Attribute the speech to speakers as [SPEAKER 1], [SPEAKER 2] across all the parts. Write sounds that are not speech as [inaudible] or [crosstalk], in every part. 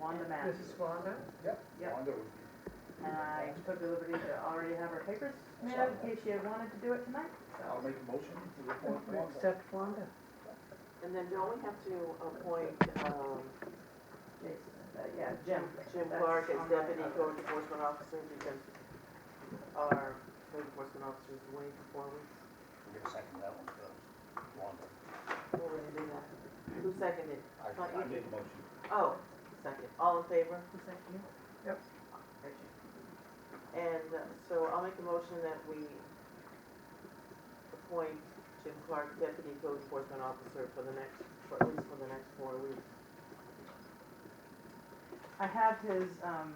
[SPEAKER 1] Wanda Matthews.
[SPEAKER 2] Mrs. Wanda?
[SPEAKER 1] Yep.
[SPEAKER 3] Wanda would be.
[SPEAKER 1] And I took the liberty to already have her papers made up in case she had wanted to do it tonight,
[SPEAKER 3] I'll
[SPEAKER 1] so.
[SPEAKER 3] make a motion to appoint Wanda.
[SPEAKER 2] Except Wanda.
[SPEAKER 4] And then don't we have to appoint, um,
[SPEAKER 1] Jason, uh, yeah, Jim.
[SPEAKER 4] Jim
[SPEAKER 1] That's
[SPEAKER 4] Clark as
[SPEAKER 1] on my
[SPEAKER 4] deputy
[SPEAKER 1] other-
[SPEAKER 4] code enforcement officer because our code enforcement officer is away for four weeks?
[SPEAKER 5] We're gonna second that one, because Wanda,
[SPEAKER 4] We're gonna do that. Who seconded?
[SPEAKER 5] I,
[SPEAKER 4] Not you.
[SPEAKER 5] I made the motion.
[SPEAKER 4] Oh, second. All in favor?
[SPEAKER 1] Is that you?
[SPEAKER 4] And uh, so I'll make a motion that we appoint Jim Clark deputy code enforcement officer for the next, for at least for the next four weeks.
[SPEAKER 1] I have his, um,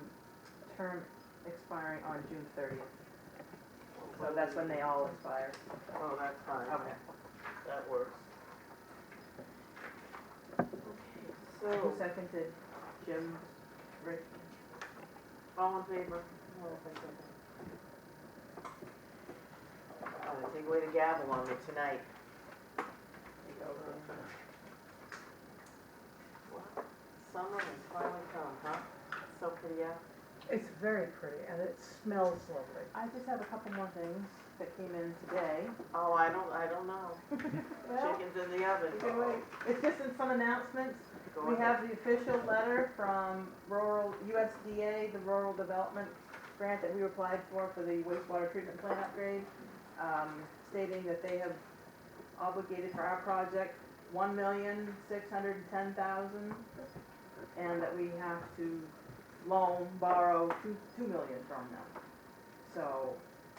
[SPEAKER 1] term expiring on June thirtieth, so that's when they all expire.
[SPEAKER 4] Oh, that's fine.
[SPEAKER 1] Okay.
[SPEAKER 4] That works.
[SPEAKER 1] Who
[SPEAKER 4] So,
[SPEAKER 1] seconded Jim, Rick?
[SPEAKER 4] all in favor? Oh, I think we're to gavel on it tonight. Well, Summer has finally come, huh? So pretty out.
[SPEAKER 2] It's very pretty and it smells lovely.
[SPEAKER 1] I just have a couple more things that came in today.
[SPEAKER 4] Oh, I don't, I don't know. Chicken's in the oven.
[SPEAKER 1] You [laughs] can wait. It's just in some announcements.
[SPEAKER 4] Go
[SPEAKER 1] We
[SPEAKER 4] ahead.
[SPEAKER 1] have the official letter from rural, USDA, the rural development grant that we applied for, for the wastewater treatment plant upgrade, um, stating that they have obligated for our project one million, six hundred and ten thousand, and that we have to loan, borrow two, two million from them. So,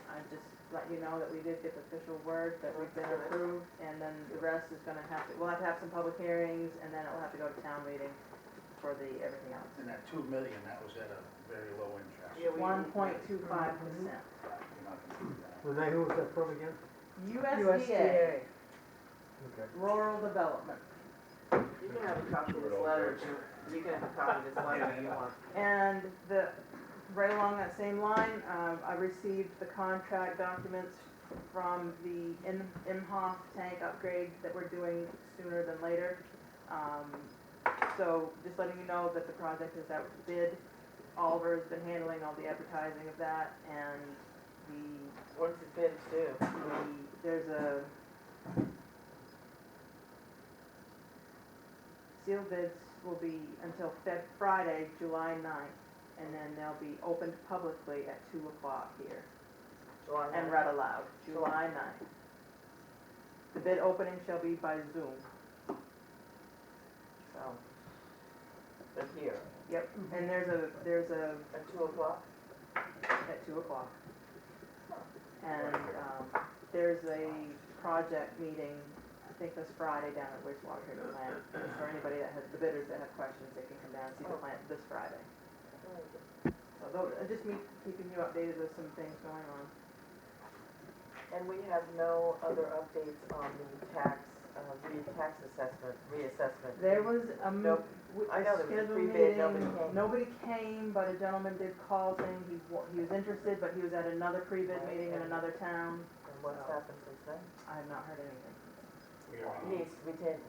[SPEAKER 1] I just let you know that we did get the official word that we've been approved, and then the rest is gonna have to, we'll have to have some public hearings, and then it'll have to go to town meeting for the, everything else.
[SPEAKER 5] And that two million, that was at a very low interest.
[SPEAKER 4] Yeah, we-
[SPEAKER 1] One point two five percent.
[SPEAKER 5] You're not gonna do that.
[SPEAKER 6] Renee, who was that from again?
[SPEAKER 1] USDA,
[SPEAKER 6] Okay.
[SPEAKER 1] rural development.
[SPEAKER 4] You can have a copy of this letter, Jim. You can have a copy of this letter if you want.
[SPEAKER 1] And the, right along that same line, um, I received the contract documents from the Im- Imhoff tank upgrade that we're doing sooner than later. Um, so just letting you know that the project is out to bid. Oliver's been handling all the advertising of that and the
[SPEAKER 4] What's it been to?
[SPEAKER 1] the- there's a sealed bids will be until Feb, Friday, July ninth, and then they'll be opened publicly at two o'clock here
[SPEAKER 4] July
[SPEAKER 1] and read aloud, July ninth. The bid opening shall be by Zoom. So,
[SPEAKER 4] But here,
[SPEAKER 1] yep, and there's a, there's a,
[SPEAKER 4] at two o'clock?
[SPEAKER 1] at two o'clock. And, um, there's a project meeting, I think this Friday down at wastewater treatment plant. It's For anybody that has, the bidders that have questions, they can come down and see the plant this Friday. So though, uh, just me keeping you updated with some things going on.
[SPEAKER 4] And we have no other updates on the tax, uh, the tax assessment, reassessment.
[SPEAKER 1] There was a, m-
[SPEAKER 4] Nope.
[SPEAKER 1] w-
[SPEAKER 4] I
[SPEAKER 1] a
[SPEAKER 4] know there was a
[SPEAKER 1] scheduled
[SPEAKER 4] pre-bid,
[SPEAKER 1] meeting,
[SPEAKER 4] nobody came.
[SPEAKER 1] nobody came, but a gentleman did call saying he, wa- he was interested, but he was at another pre-bid
[SPEAKER 4] Right,
[SPEAKER 1] meeting in
[SPEAKER 4] and-
[SPEAKER 1] another town.
[SPEAKER 4] And what's happened since then?
[SPEAKER 1] I have not heard anything.
[SPEAKER 5] We are on
[SPEAKER 4] It needs to be taken,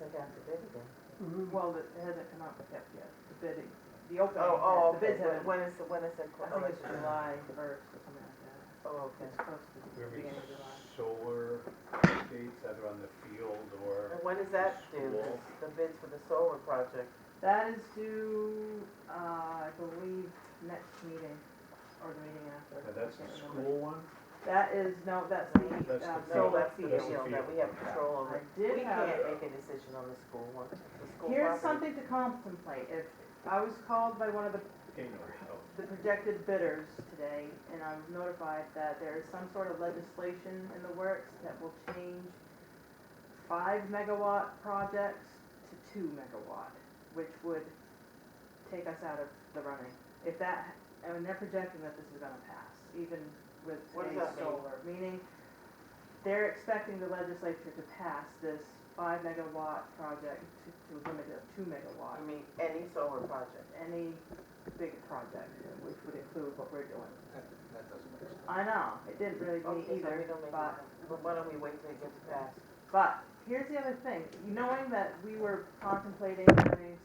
[SPEAKER 4] sent out to bid again.
[SPEAKER 5] Mm-hmm.
[SPEAKER 1] Well, it hasn't come out yet, yet, the bidding, the opening,
[SPEAKER 4] Oh, oh,
[SPEAKER 1] the
[SPEAKER 4] okay,
[SPEAKER 1] bids haven't.
[SPEAKER 4] when is, the- when is it?
[SPEAKER 1] I think it's July first or something like that.
[SPEAKER 4] Oh, okay.
[SPEAKER 1] It's close to the
[SPEAKER 5] Where we-
[SPEAKER 1] beginning of July.
[SPEAKER 5] solar updates, either on the field or,
[SPEAKER 4] And when does that do,
[SPEAKER 5] School.
[SPEAKER 4] the bids for the solar project?
[SPEAKER 1] That is due, uh, I believe, next meeting or the meeting after.
[SPEAKER 5] now that's
[SPEAKER 1] I
[SPEAKER 5] the
[SPEAKER 1] can't remember.
[SPEAKER 5] school one?
[SPEAKER 1] That is, no, that's the,
[SPEAKER 5] That's the
[SPEAKER 1] um,
[SPEAKER 5] field.
[SPEAKER 4] No,
[SPEAKER 1] solar
[SPEAKER 4] that's the
[SPEAKER 5] That's
[SPEAKER 1] field.
[SPEAKER 5] the
[SPEAKER 4] deal that we have
[SPEAKER 5] field.
[SPEAKER 4] control
[SPEAKER 1] I
[SPEAKER 4] over.
[SPEAKER 1] did
[SPEAKER 4] We
[SPEAKER 1] have.
[SPEAKER 4] can't make a decision on the school one, the school property.
[SPEAKER 1] Here's something to contemplate. If, I was called by one of the
[SPEAKER 5] Anyway, oh,
[SPEAKER 1] the projected bidders today, and I was notified that there is some sort of legislation in the works that will change five megawatt projects to two megawatt, which would take us out of the running. If that, I mean, they're projecting that this is gonna pass, even with
[SPEAKER 4] What does
[SPEAKER 1] today's
[SPEAKER 4] that mean?
[SPEAKER 1] solar, meaning they're expecting the legislature to pass this five megawatt project to, to limit it to two megawatt
[SPEAKER 4] I mean, any solar project.
[SPEAKER 1] any big project, which would include what we're doing.
[SPEAKER 5] that, that doesn't make sense.
[SPEAKER 1] I know, it didn't really
[SPEAKER 4] Okay, so
[SPEAKER 1] mean
[SPEAKER 4] we
[SPEAKER 1] either,
[SPEAKER 4] don't make
[SPEAKER 1] but,
[SPEAKER 4] it- But why don't we wait till it gets passed?
[SPEAKER 1] but here's the other thing, knowing that we were contemplating doing